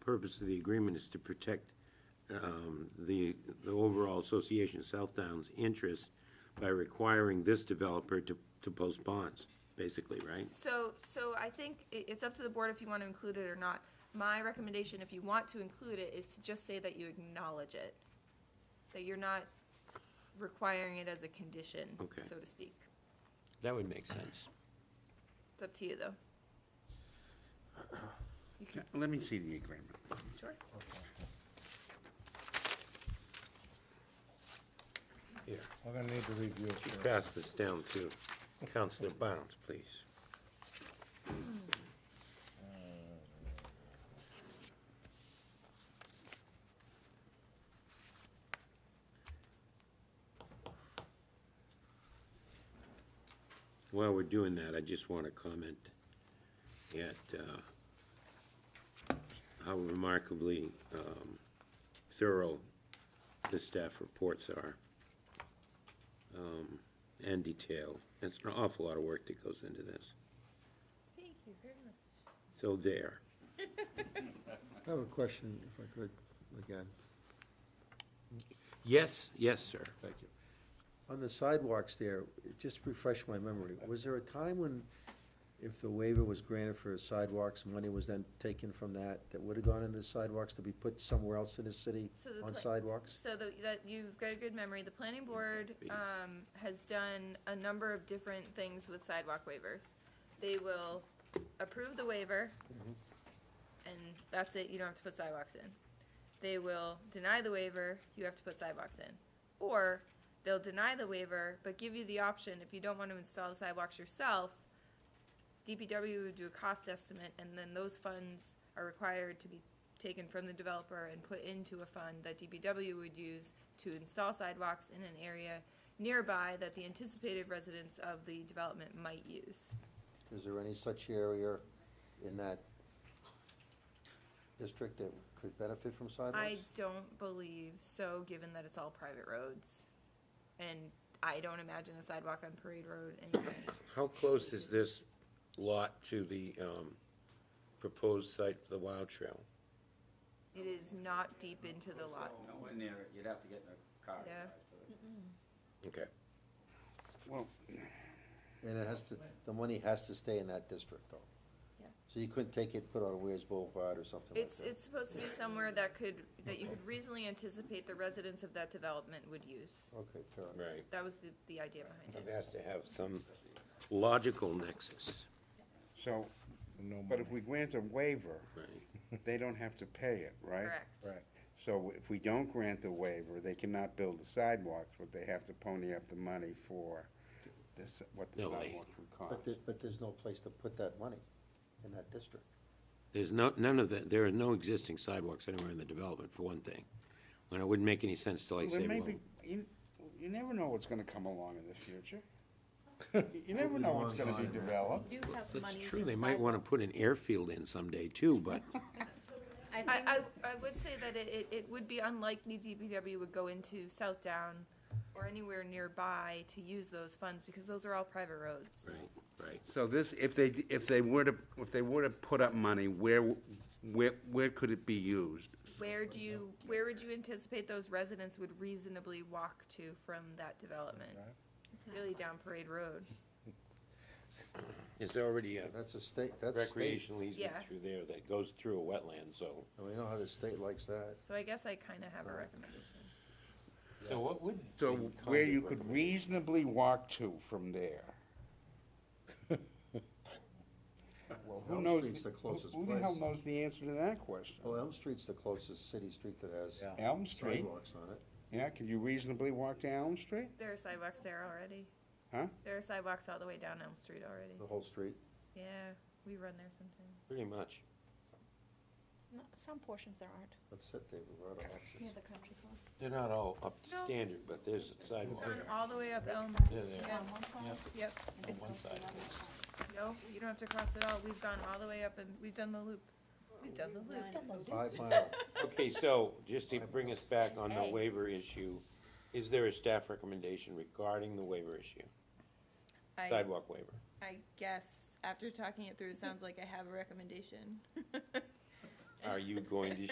purpose of the agreement is to protect um, the, the overall Association of South Down's interest by requiring this developer to, to post bonds, basically, right? So, so I think i- it's up to the board if you want to include it or not. My recommendation, if you want to include it, is to just say that you acknowledge it, that you're not requiring it as a condition, Okay. so to speak. That would make sense. It's up to you, though. Let me see the agreement. Sure. Here, We're gonna need to review it first. pass this down to Counselor Bounce, please. While we're doing that, I just want to comment at uh, how remarkably um, thorough the staff reports are um, and detailed. It's an awful lot of work that goes into this. Thank you very much. So there. I have a question, if I could, again, Yes, yes, sir. thank you. On the sidewalks there, just refresh my memory, was there a time when, if the waiver was granted for sidewalks, money was then taken from that, that would've gone into sidewalks to be put somewhere else in the city So the on pla- sidewalks? So the- that, you've got a good memory. The planning board um, has done a number of different things with sidewalk waivers. They will approve the waiver, and that's it, you don't have to put sidewalks in. They will deny the waiver, you have to put sidewalks in. Or they'll deny the waiver, but give you the option, if you don't want to install the sidewalks yourself, DPW would do a cost estimate, and then those funds are required to be taken from the developer and put into a fund that DPW would use to install sidewalks in an area nearby that the anticipated residents of the development might use. Is there any such area in that district that could benefit from sidewalks? I don't believe so, given that it's all private roads. And I don't imagine a sidewalk on Parade Road anyway. How close is this lot to the um, proposed site for the Wild Trail? It is not deep into the lot. Nowhere near it, you'd have to get in a car. to Yeah. drive to it. Okay. Well, And it has to, the money has to stay in that district, though. Yeah. So you couldn't take it, put on Weir's Boulevard or something like It's, that? it's supposed to be somewhere that could, that you could reasonably anticipate the residents of that development would use. Okay, fair enough. Right. That was the, the idea behind It it. has to have some logical nexus, so, but if we grant a waiver, right? they don't have to pay it, right? Correct. Right. So if we don't grant the waiver, they cannot build the sidewalks, but they have to pony up the money for this, what the No, they- sidewalks would But cost. there, but there's no place to put that money in that district. There's no, none of that, there are no existing sidewalks anywhere in the development, for one thing. And it wouldn't make any sense to like Well, say, there may well, be, you, you never know what's gonna come along in the future. You- You never know what's gonna be developed. do have that's monies true, in they might want to sidewalks. put an airfield in someday too, but I think I, I, I would say that it, it- it would be unlikely DPW would go into South Down or anywhere nearby to use those funds because those are all private roads. Right, right. So this, if they, if they were to, if they were to put up money, where, where, where could it be used? Where do you, where would you anticipate those residents would reasonably walk to from that development? It's really down Parade Road. It's already a That's a state, that's state. recreational easement Yeah. through there that goes through a wetland, so. And we know how the state likes that. So I guess I kind of have a recommendation. So what would? So where you could reasonably walk to from there. Well, Who Elm knows? Street's the closest Who the hell place. knows the answer to that question? Well, Elm Street's the closest city street that has Elm Street, sidewalks on it. yeah, can you reasonably walk to Elm Street? There are sidewalks there already. Huh? There are sidewalks all the way down Elm Street already. The whole street. Yeah, we run there sometimes. Pretty much. no, some portions there aren't, That's it, David, we're out of near options. the country club. They're not all up to No. standard, but there's sidewalks. Down all the way up Elm. They're there. Yeah. On one side. Yep. and On it one goes to side. another side. No, you don't have to cross at all. We've gone all the way up and we've done the loop. We've done the loop. Five mile, Okay, so just to bring us back on the waiver issue, is there a staff recommendation regarding the waiver issue? I, Sidewalk waiver? I guess after talking it through, it sounds like I have a recommendation. Are you going to